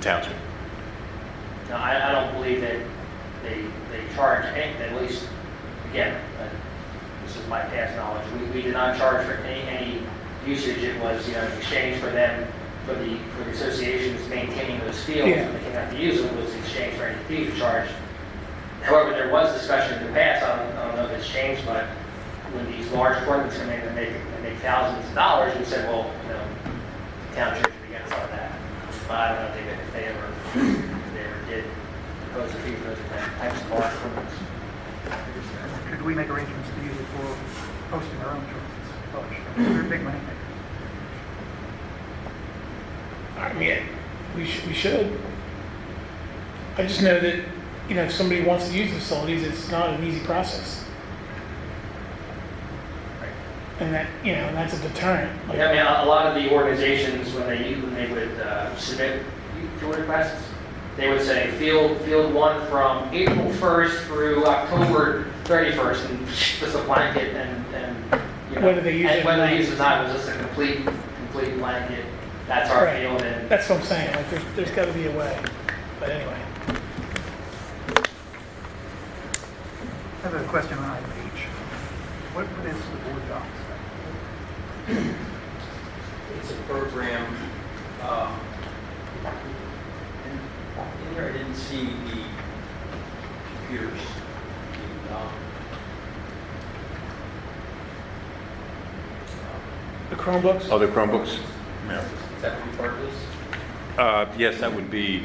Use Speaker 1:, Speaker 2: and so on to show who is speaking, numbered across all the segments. Speaker 1: township.
Speaker 2: No, I, I don't believe that they, they charge, any- at least, again, uh, this is my past knowledge, we, we did not charge for any, any usage, it was, you know, in exchange for them, for the, for the associations maintaining those fields,
Speaker 3: Yeah.
Speaker 2: and they cannot use them, was in exchange for any fee we charged. However, there was discussion in the past, I don't, I don't know if it's changed, but when these large tournaments come in and make, and make thousands of dollars, we said, well, you know, the town church would be against all that. But I don't know if they, if they ever, if they ever did propose a fee for those types of large tournaments.
Speaker 4: Could we make arrangements to use it for hosting our own tournaments? Publish. We're big money makers.
Speaker 3: I mean, we should, we should. I just know that, you know, if somebody wants to use the facilities, it's not an easy process. And that, you know, and that's a deterrent. Like,
Speaker 2: Yeah, I mean, a- a lot of the organizations, when they, when they would uh, submit field requests, they would say field, field one from April 1st through October 31st, and just a blanket, and, and, you know.
Speaker 3: Whether they use it
Speaker 2: And
Speaker 3: or
Speaker 2: whether
Speaker 3: not.
Speaker 2: they use it or not, it was just a complete, complete blanket, that's our
Speaker 3: Right.
Speaker 2: field, and
Speaker 3: That's what I'm saying, like, there's, there's gotta be a way, but anyway.
Speaker 4: I have a question on item H. What is the board docs?
Speaker 5: It's a program, um, in- in there I didn't see the computers. The, um,
Speaker 3: The Chromebooks,
Speaker 1: Other Oh, Chromebooks? No.
Speaker 5: Is that what you part of this?
Speaker 1: Uh, Yes, that would be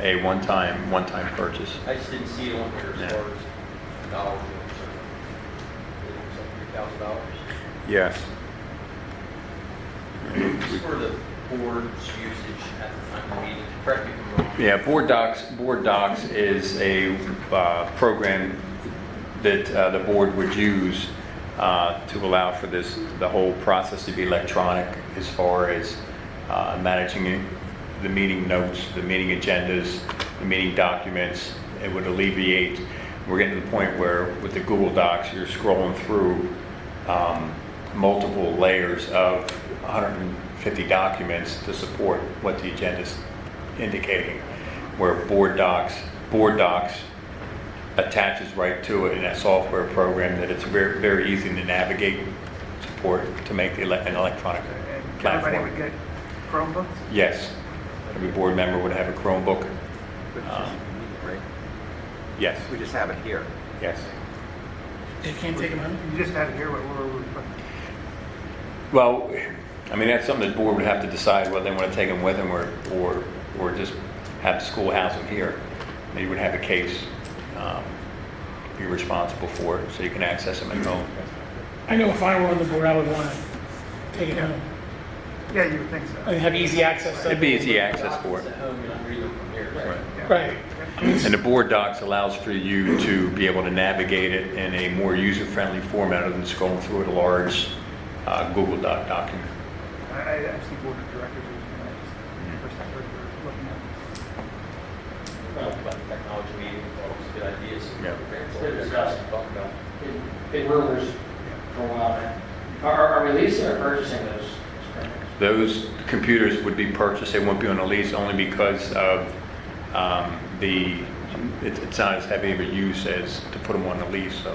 Speaker 1: a one-time, one-time purchase.
Speaker 5: I just didn't see it on here
Speaker 1: Yeah.
Speaker 5: as far as dollars. or something. It was like three thousand dollars.
Speaker 1: Yes.
Speaker 5: It's for the board's usage at the time of meeting, correct me if I'm wrong.
Speaker 1: Yeah, Board Docs, Board Docs is a uh, program that uh, the board would use uh, to allow for this, the whole process to be electronic as far as uh, managing it, the meeting notes, the meeting agendas, the meeting documents. It would alleviate, we're getting to the point where with the Google Docs, you're scrolling through um, multiple layers of 150 documents to support what the agenda's indicating, where board docs, board docs attaches right to it in a software program that it's very, very easy to navigate, support, to make the, ele- an electronic
Speaker 4: And Everybody would
Speaker 1: platform.
Speaker 4: get Chromebooks?
Speaker 1: Yes, every board member would have a Chromebook. Um, Yes,
Speaker 6: We just have it here.
Speaker 1: yes.
Speaker 3: you can't take them home?
Speaker 4: You just have it here, what, what, what-
Speaker 1: Well, I mean, that's something the board would have to decide whether they want to take them with them or, or, or just have the school house them here. They would have a case, um, be responsible for it, so you can access them at home.
Speaker 3: I know if I were on the board, I would wanna take it home,
Speaker 4: yeah, you would think so.
Speaker 3: and have easy access to it.
Speaker 1: It'd be easy access for
Speaker 5: Documents
Speaker 1: it.
Speaker 5: At home, you don't read them from here.
Speaker 1: Right.
Speaker 4: Yeah.
Speaker 3: Right,
Speaker 1: And the board docs allows for you to be able to navigate it in a more user-friendly format other than scrolling through a large uh, Google Doc document.
Speaker 4: I, I- I've seen board of directors using that, It's the first I've heard of looking at.
Speaker 5: Well, about the technology meeting, all those good ideas.
Speaker 1: Yeah.
Speaker 5: It's
Speaker 2: been discussed.
Speaker 5: Talk about.
Speaker 2: been- been rumors for a while now. Are- Are, are we leasing or purchasing those?
Speaker 1: Those computers would be purchased, they won't be on a lease only because of um, the, it- it's not as heavy of a use as to put them on a lease, so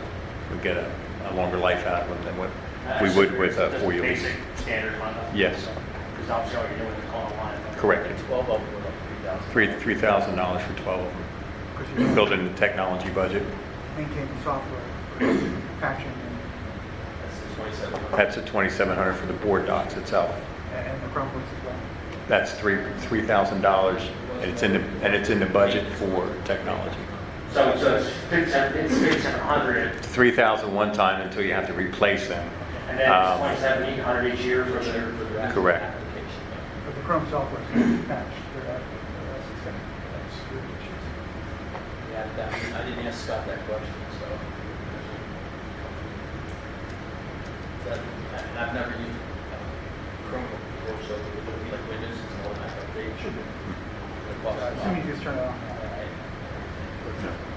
Speaker 1: we get a a longer life out of them than what we would with a
Speaker 2: Uh, Just
Speaker 1: four-year lease.
Speaker 2: Basic standard one.
Speaker 1: Yes.
Speaker 2: Because I'm sure you're doing the call line.
Speaker 1: Correct.
Speaker 5: Twelve of them were like three thousand.
Speaker 1: Three $3,000 for 12 of them,
Speaker 4: Because you
Speaker 1: built into the technology budget.
Speaker 4: maintain the software for patching
Speaker 5: That's the twenty-seven hundred.
Speaker 1: That's at 2,700 for the board docs itself.
Speaker 4: and, and the Chromebooks as well.
Speaker 1: That's three, $3,000, and it's in the, and it's in the budget for technology.
Speaker 2: So, so it's fifty-seven, it's fifty-seven hundred,
Speaker 1: 3,000 one time until you have to replace them.
Speaker 2: and then
Speaker 1: Um,
Speaker 2: it's twenty-seven, eight hundred each year for the,
Speaker 1: Correct.
Speaker 5: Application.
Speaker 4: But the Chrome software is going to be patched. They're out- they're out of system. That's security issues.
Speaker 5: Yeah, that, um, I didn't ask Scott that question, so. That, I- I've never used uh, Chromebook before, so it would be like Windows and all that update. Should be.
Speaker 4: As soon as you just turn it on.
Speaker 1: No.